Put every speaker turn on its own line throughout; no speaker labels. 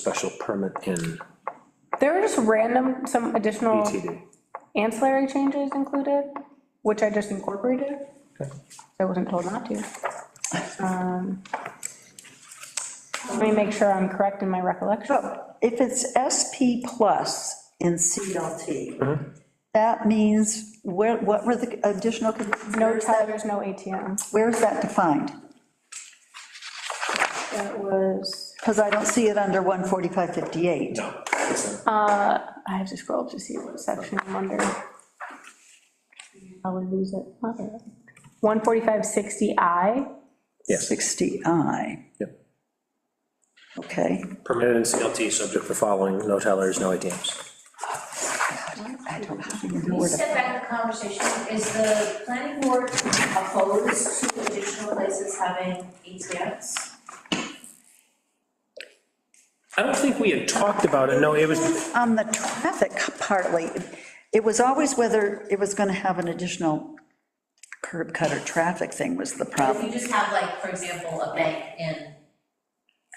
special permit in E
There were just random, some
Oh.
additional
BTD.
ancillary changes included, which I just incorporated. I wasn't told not to. Um, Let me make sure I'm correct in my recollection.
If it's SP plus in CLT,
Mm-hmm.
that means, where, what were the additional conditions?
No
Where is that-
tellers, no ATMs.
Where is that defined?
That was,
Because I don't see it under 14558.
No.
Um.
uh, I have to scroll up to see what section I'm under. I would lose it. 14560I,
Yes.
60I,
Yep.
okay.
Permitted in CLT, subject to following, no tellers, no ATMs.
I don't even know
Can you
where to.
step back in the conversation? Is the planning board opposed to additional places having ATMs?
I don't think we had talked about it, no, it was,
On the traffic partly, it was always whether it was going to have an additional curb cut or traffic thing was the
If
problem.
you just have like, for example, a bank in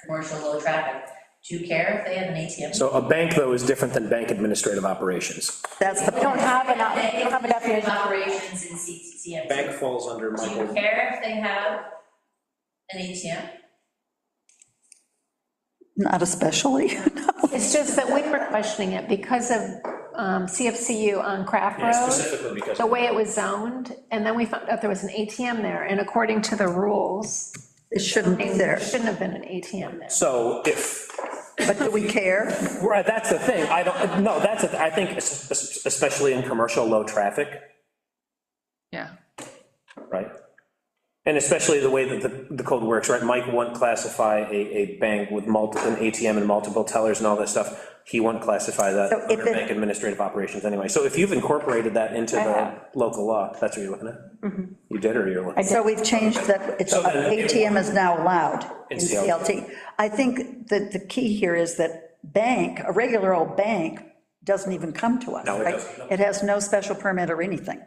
commercial low traffic, do you care if they have an ATM?
so a bank, though, is different than bank administrative operations.
That's
We
the,
don't have an op- we don't have a definition.
Operations in CCMC.
falls under
Do you care if they have an ATM?
not especially.
It's just that we were questioning it because of um, CFCU on Craft Road,
because.
the way it was zoned, and then we found out there was an ATM there, and according to the rules,
It shouldn't be
there
there.
shouldn't have been an ATM there.
So if,
But do we care?
right, that's the thing, I don't, no, that's, the th- I think, es- es- especially in commercial low-traffic,
Yeah.
right? And especially the way that the, the code works, right? Mike wouldn't classify a, a bank with multi, an ATM and multiple tellers and all that stuff. He wouldn't classify that
So if
under
it-
bank administrative operations anyway. So if you've incorporated that into
I have.
the local law, that's what you're looking at?
Mm-hmm.
You did, or you're looking?
So we've changed that, it's,
So then-
ATM is now allowed
In
in
CLT.
CLT. I think that the key here is that bank, a regular old bank, doesn't even come to us,
No, it
right?
doesn't, no.
It has no special permit or anything.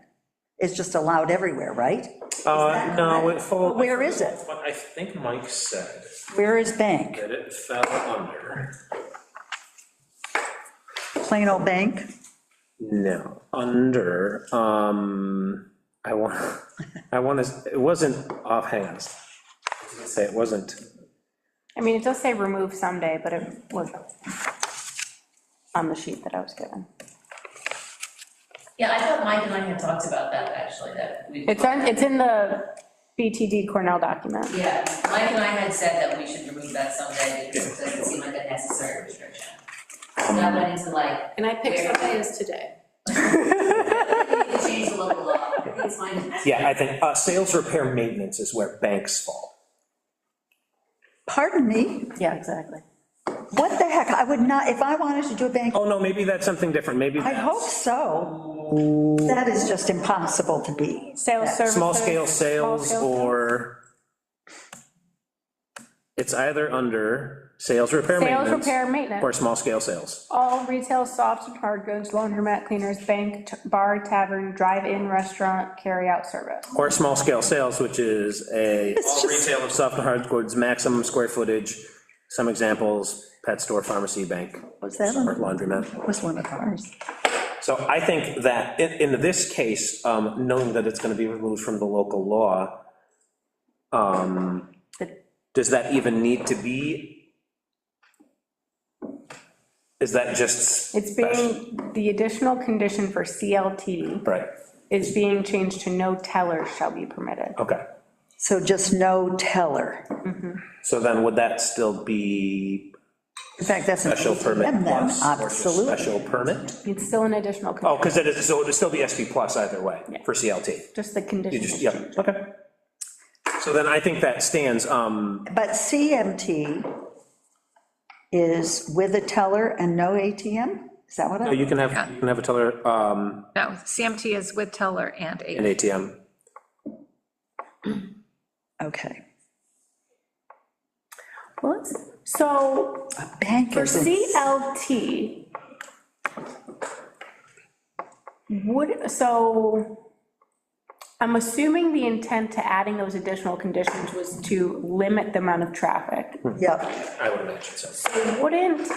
It's just allowed everywhere, right?
Uh, no, it
Well, Where is it?
What I think Mike said,
Where is bank?
that it fell under.
Plain old bank?
No, under, um, I want, I want to, it wasn't offhand. Say it wasn't.
I mean, it does say remove someday, but it was on the sheet that I was given.
Yeah, I thought Mike and I had talked about that, actually, that we.
It's on, it's in the BTD Cornell document.
Yeah, Mike and I had said that we should remove that someday because it doesn't seem like a necessary restriction. So that went into like,
And I picked
Where?
something as today.
we need to change the local law, please find it.
Yeah, I think, uh, sales, repair, maintenance is where banks fall.
Pardon me?
Yeah, exactly.
What the heck? I would not, if I wanted to do a bank,
Oh, no, maybe that's something different, maybe.
I hope so. That is just impossible to be.
Sales services.
Small scale sales
small-scale
or. It's either under sales, repair,
Sales,
maintenance.
repair, maintenance.
Or small scale sales.
All retail soft and hard goods, laundromat cleaners, bank, t- bar, tavern, drive-in, restaurant, carry-out service.
Or small scale sales, which is a.
It's
All
just-
retail of soft and hard goods, maximum square footage, some examples, pet store, pharmacy, bank,
Was that
or
one,
laundromat.
was one of ours?
So I think that in, in this case, um, knowing that it's gonna be removed from the local law, um, does that even need to be? Is that just?
It's
special?
being, the additional condition for CLT
Right,
is being changed to no tellers shall be permitted.
okay.
So just no teller.
So then would that still be
In fact, that's. an
special permit
ATM then,
plus? or just
Absolutely.
Special permit?
It's still an additional, con-
Oh, because it is, so it'd still be SP plus either way for CLT.
just the
You
condition.
just, yeah, okay. So then I think that stands, um,
But CMT is with a teller and no ATM? Is that what I,
you can have, you can have a teller, um,
No, CMT is with teller and
an
ATM.
ATM.
okay.
Well, it's- So
Bank
For
is, in-
CLT, would, so, I'm assuming the intent to adding those additional conditions was to limit the amount of traffic.
Yep.
I would imagine so.
So wouldn't